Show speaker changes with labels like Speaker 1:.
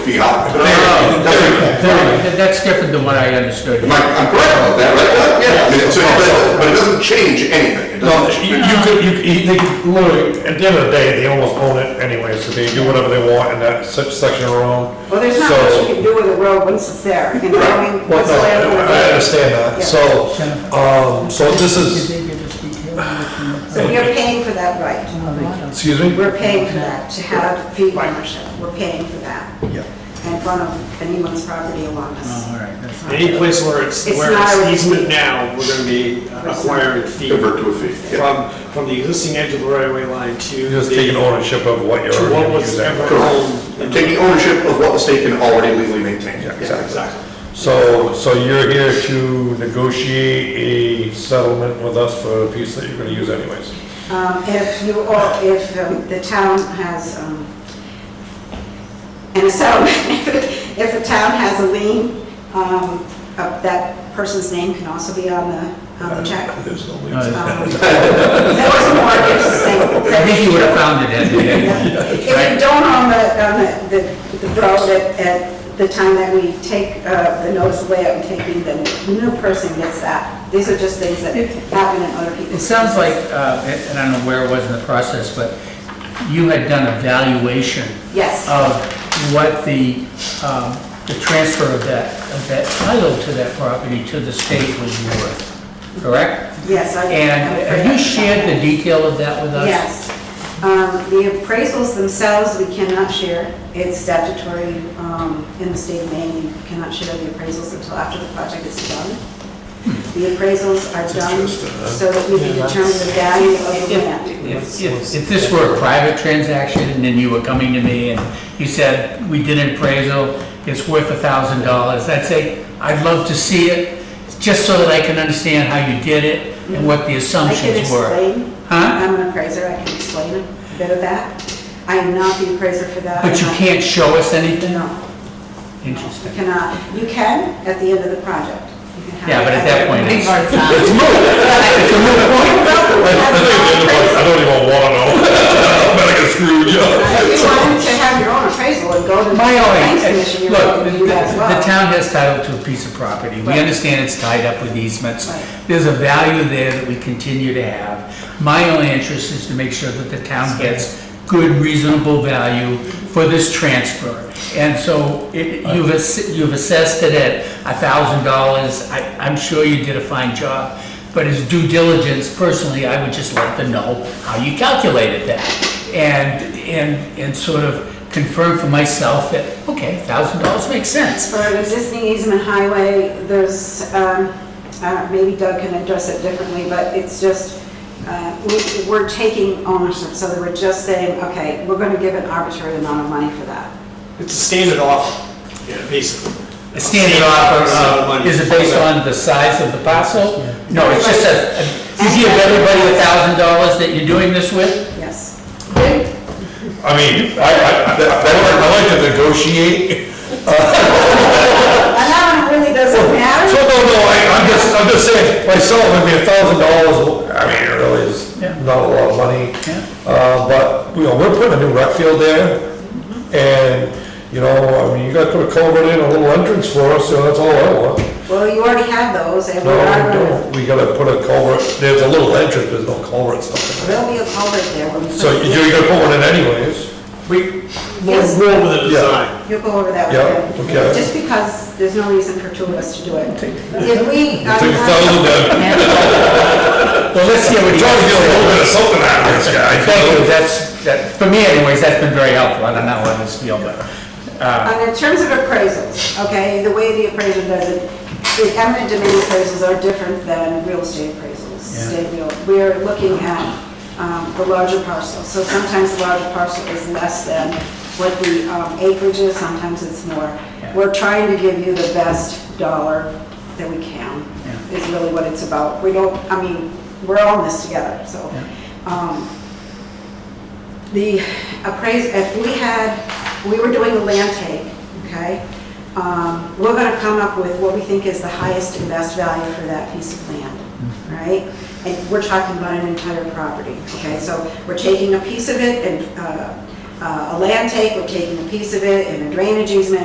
Speaker 1: feet high.
Speaker 2: No, no, no.
Speaker 3: That- That's different than what I understood.
Speaker 1: Am I, I'm correct about that, right? Yeah. I mean, so, but, it- but it doesn't change anything. It
Speaker 2: No,
Speaker 1: doesn't.
Speaker 2: you you could, you, could- you- they could literally, at the end of the day, they almost own it anyway, so they do whatever they want in that such section of room.
Speaker 4: Well, there's not much you can do with a road once it's there, you know, I mean,
Speaker 2: Well,
Speaker 4: what's the
Speaker 2: no,
Speaker 4: land of
Speaker 2: I I
Speaker 4: the road?
Speaker 2: understand that,
Speaker 4: Yeah.
Speaker 2: so, um, so this is,
Speaker 5: Did they give us detail on
Speaker 4: So we are paying for that right.
Speaker 5: the lot?
Speaker 2: excuse me?
Speaker 4: We're paying for that, to have fee ownership, we're paying for that.
Speaker 2: Yeah. Oh,
Speaker 4: In front of anyone's property along
Speaker 3: All
Speaker 4: us.
Speaker 3: right, that's-
Speaker 6: Any place where it's,
Speaker 4: It's
Speaker 6: where
Speaker 4: not
Speaker 6: it's
Speaker 4: always
Speaker 6: easement
Speaker 4: me.
Speaker 6: now, we're gonna be acquiring feet.
Speaker 1: Convert to a fee, yeah.
Speaker 6: From, from the existing edge of the right of way line to
Speaker 2: You're just
Speaker 6: the-
Speaker 2: taking ownership of what you're
Speaker 6: To what
Speaker 2: already
Speaker 6: was ever
Speaker 2: using.
Speaker 6: owned. in-
Speaker 1: Taking ownership of what the state can already legally maintain.
Speaker 2: Yeah,
Speaker 6: Yeah, exactly.
Speaker 2: So, so you're here to negotiate a settlement with us for a piece that you're gonna use anyways.
Speaker 4: Um, if you, or if um, the town has, um, and so, if the town has a lien, um, uh, that person's name can also be on the, on the check.
Speaker 2: There's no
Speaker 3: No,
Speaker 2: leases.
Speaker 3: it's-
Speaker 4: Um, There was more, there's thing.
Speaker 3: I think you would have found it had you had
Speaker 4: If you don't own the, on the, the- the road at, at the time that we take, uh, the notice of layout and taking, then the new person gets that. These are just things that happen in other people's.
Speaker 3: It sounds like, uh, and I don't know where it was in the process, but you had done a valuation
Speaker 4: Yes.
Speaker 3: of what the, um, the transfer of that, of that title to that property to the state was worth, correct?
Speaker 4: Yes, I.
Speaker 3: And have you shared the detail of that with us?
Speaker 4: Yes. Um, the appraisals themselves, we cannot share. It's statutory, um, in the state of Maine, you cannot share the appraisals until after the project is done.
Speaker 3: Hmm.
Speaker 4: The appraisals are done so that we can determine the value of the land.
Speaker 3: If, if, if this were a private transaction and then you were coming to me and you said, we did an appraisal, it's worth a thousand dollars, I'd say, I'd love to see it, just so that I can understand how you did it and what the
Speaker 4: I can
Speaker 3: assumptions were.
Speaker 4: explain.
Speaker 3: Huh?
Speaker 4: I'm an appraiser, I can explain a bit of that. I am not the appraiser for that.
Speaker 3: But you
Speaker 4: I'm not-
Speaker 3: can't show us anything?
Speaker 4: No. You
Speaker 3: Interesting.
Speaker 4: cannot. You can at the end of the project. You can have
Speaker 3: Yeah, but at that point, it's,
Speaker 2: I don't even wanna know. But I get screwed, yeah.
Speaker 4: If you wanted to have your own appraisal and go to the
Speaker 3: my
Speaker 4: planning commission,
Speaker 3: only,
Speaker 4: you're welcome
Speaker 3: look,
Speaker 4: to
Speaker 3: the
Speaker 4: do that as well.
Speaker 3: the town has title to a piece of property, we
Speaker 4: Right.
Speaker 3: understand it's tied up with easements.
Speaker 4: Right.
Speaker 3: There's a value there that we continue to have. My only interest is to make sure that the town gets good reasonable value for this transfer. And so it- you've ass- you've assessed it at $1,000, I- I'm sure you did a fine job, but as due diligence, personally, I would just like to know how you calculated that. And, and, and sort of confirm for myself that, okay, $1,000 makes sense.
Speaker 4: For an existing easement highway, there's, um, uh, maybe Doug can address it differently, but it's just, uh, we- we're taking ownership, so that we're just saying, okay, we're going to give an arbitrary amount of money for that.
Speaker 6: It's a standard offer, yeah, basically.
Speaker 3: A standard offer,
Speaker 6: Standard
Speaker 3: uh,
Speaker 6: money.
Speaker 3: is it based on the size of the parcel? No, it's just a, you give everybody a thousand dollars that you're doing this with?
Speaker 4: Yes.
Speaker 2: I mean, I, I, I I like to negotiate.
Speaker 4: And that one really doesn't
Speaker 2: So,
Speaker 4: matter.
Speaker 2: no, no, I, I'm just, I'm just saying, myself, I mean, a thousand dollars, I mean, it really is
Speaker 3: Yeah.
Speaker 2: not a lot of money.
Speaker 3: Yeah.
Speaker 2: Uh, but, you know, we're putting a new rec field there, and, you know, I mean, you gotta put a culvert in, a little entrance for us, so that's all I want.
Speaker 4: Well, you already have those, and we
Speaker 2: No,
Speaker 4: are
Speaker 2: we
Speaker 4: going to,
Speaker 2: don't, we gotta put a culvert, there's a little entrance, there's no culvert stuff.
Speaker 4: there'll be a culvert there when we. put
Speaker 2: So
Speaker 4: it in.
Speaker 2: you're gonna put one in anyways.
Speaker 6: We,
Speaker 4: Yes.
Speaker 6: we'll go over the
Speaker 2: Yeah.
Speaker 6: design.
Speaker 4: You'll go over that with
Speaker 2: Yeah,
Speaker 4: him.
Speaker 2: okay.
Speaker 4: Just because there's no reason for two of us to do it. If we.
Speaker 2: Take a thousand, uh,
Speaker 3: Well, let's hear what
Speaker 2: we're
Speaker 3: you
Speaker 2: trying to get a little
Speaker 3: have
Speaker 2: bit
Speaker 3: to
Speaker 2: of
Speaker 3: say.
Speaker 2: something out of this guy.
Speaker 3: Thank you, that's, that, for me anyways, that's been very helpful, I don't know how this feel, but, uh,
Speaker 4: And in terms of appraisals, okay, the way the appraiser does it, the eminent domain appraisals are different than real estate appraisals.
Speaker 3: Yeah.
Speaker 4: State real, we're looking at um, the larger parcel. So sometimes the larger parcel is less than what the um, acreage is, sometimes it's more.
Speaker 3: Yeah.
Speaker 4: We're trying to give you the best dollar that we can,
Speaker 3: Yeah.
Speaker 4: is really what it's about. We don't, I mean, we're all in this together, so. um, the appraise, if we had, we were doing a land take, okay? Um, We're gonna come up with what we think is the highest and best value for that piece of land, right? And we're talking about an entire property, okay? So we're taking a piece of it and uh, uh, a land take, we're taking a piece of it and a drainage easement